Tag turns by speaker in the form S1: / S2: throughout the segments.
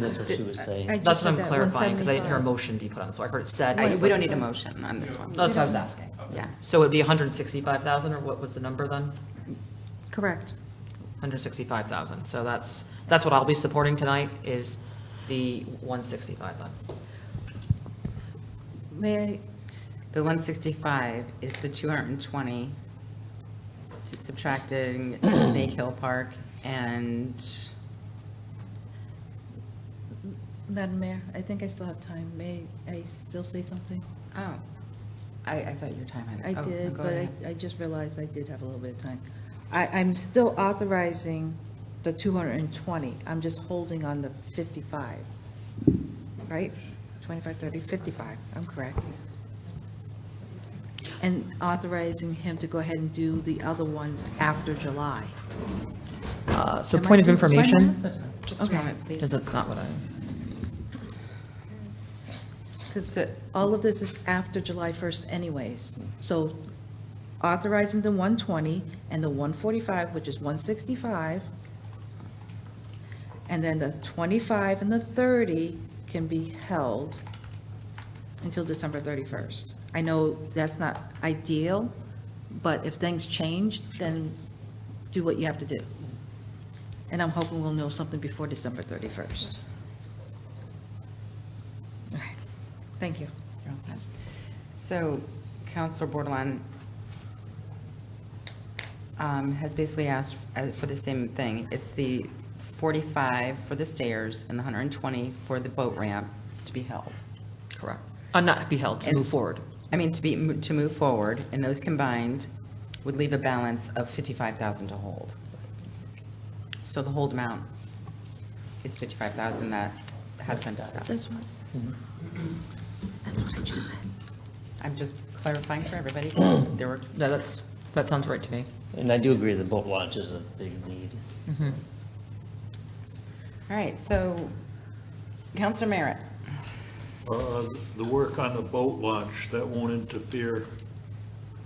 S1: That's what she was saying.
S2: I just
S1: That's what
S2: said
S1: I'm
S2: that,
S1: clarifying, because I didn't hear a
S2: 175.
S1: motion be put on the floor. I heard it said.
S3: I-
S1: but it
S3: We don't
S1: wasn't-
S3: need a motion on this one.
S1: That's what I was asking.
S3: Yeah.
S1: So it'd be 165,000, or what was the number then?
S2: Correct.
S1: 165,000. So that's, that's what I'll be supporting tonight, is the 165 then.
S3: May I? The 165 is the 220 subtracting Snake Hill Park and,
S2: Madam Mayor, I think I still have time. May I still say something?
S3: oh, I, I thought your time
S2: I
S3: had. oh,
S2: did,
S3: go
S2: but I,
S3: ahead.
S2: I just realized I did have a little bit of time. I, I'm still authorizing the 220. I'm just holding on the 55, right? 25, 30, 55, I'm correct. And authorizing him to go ahead and do the other ones after July.
S1: Uh, So
S2: Am I
S1: point of
S2: doing- am I doing
S1: information,
S2: that?
S3: Just a
S2: okay.
S3: moment, please.
S1: because that's not what I,
S2: Because all of this is after July 1st anyways. So authorizing the 120 and the 145, which is 165, and then the 25 and the 30 can be held until December 31st. I know that's not ideal, but if things change, then do what you have to do. And I'm hoping we'll know something before December 31st. Okay, Thank you.
S3: You're all set. So Counselor Bordelon um, has basically asked uh, for the same thing. It's the 45 for the stairs and the 120 for the boat ramp to be held.
S1: correct. Uh, Not be held, to
S3: And-
S1: move forward.
S3: I mean, to be, to move forward, and those combined would leave a balance of 55,000 to hold. So the hold amount is 55,000 that has been discussed.
S2: what, that's what I just said.
S3: I'm just clarifying for everybody, there were,
S1: No, that's, that sounds right to me.
S4: And I do agree the boat launch is a big need.
S3: all right, so Counselor Merritt,
S5: Uh, The work on the boat launch, that won't interfere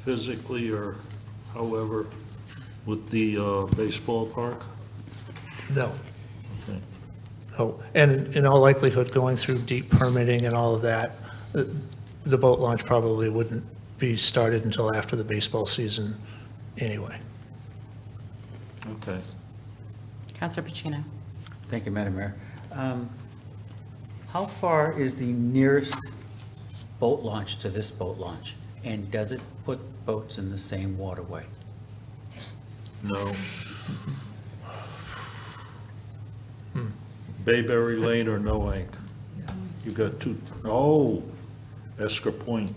S5: physically or however with the uh, baseball park?
S6: No,
S5: Okay.
S6: no. And in all likelihood, going through deep permitting and all of that, uh, the boat launch probably wouldn't be started until after the baseball season anyway.
S5: Okay.
S3: Counselor Pacino.
S7: Thank you, Madam Mayor. Um, How far is the nearest boat launch to this boat launch? And does it put boats in the same waterway?
S5: No. Bayberry Lane or Noank? You got two, oh, Esker Point.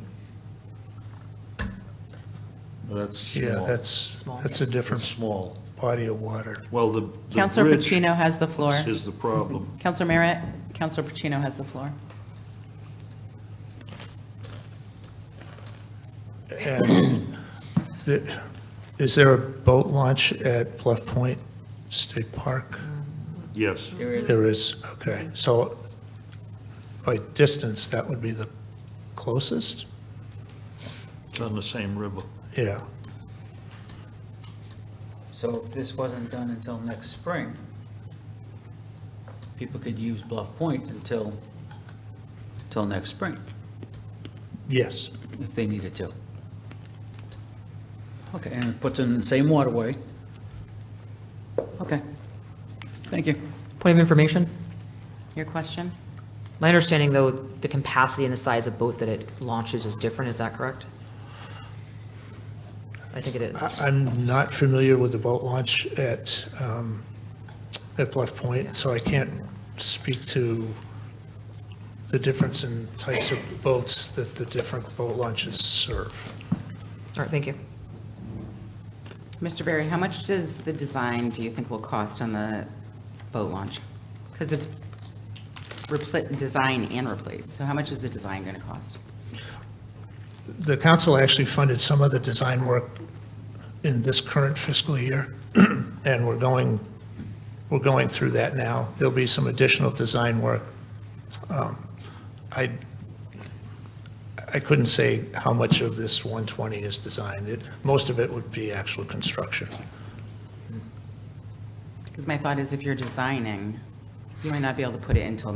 S5: That's small.
S6: Yeah, that's,
S1: Small.
S6: that's a
S5: That's
S6: different
S5: small.
S6: body of water.
S5: Well, the. the
S3: Counselor
S5: bridge
S3: Pacino has the floor.
S5: Is the problem.
S3: Counselor Merritt, Counselor Pacino has the floor.
S6: And the- is there a boat launch at Bluff Point State Park?
S5: Yes.
S6: There is, okay. So by distance, that would be the closest?
S5: It's on the same river.
S6: Yeah.
S7: So if this wasn't done until next spring, people could use Bluff Point until, till next spring,
S6: Yes.
S7: if they needed to. Okay, and it puts it in the same waterway? Okay. Thank you.
S1: Point of information?
S3: Your question?
S1: My understanding, though, the capacity and the size of boat that it launches is different, is that correct? I think it is.
S6: I- I'm not familiar with the boat launch at, um, at Bluff Point, so I can't speak to the difference in types of boats that the different boat launches serve.
S1: All right, thank you.
S3: Mr. Barry, how much does the design, do you think, will cost on the boat launch? Because it's repli, design and replace, so how much is the design going to cost?
S6: The council actually funded some of the design work in this current fiscal year, and we're going, we're going through that now. There'll be some additional design work. Um, I, I couldn't say how much of this 120 is designed. It- Most of it would be actual construction.
S3: Because my thought is if you're designing, You might not be able to put it until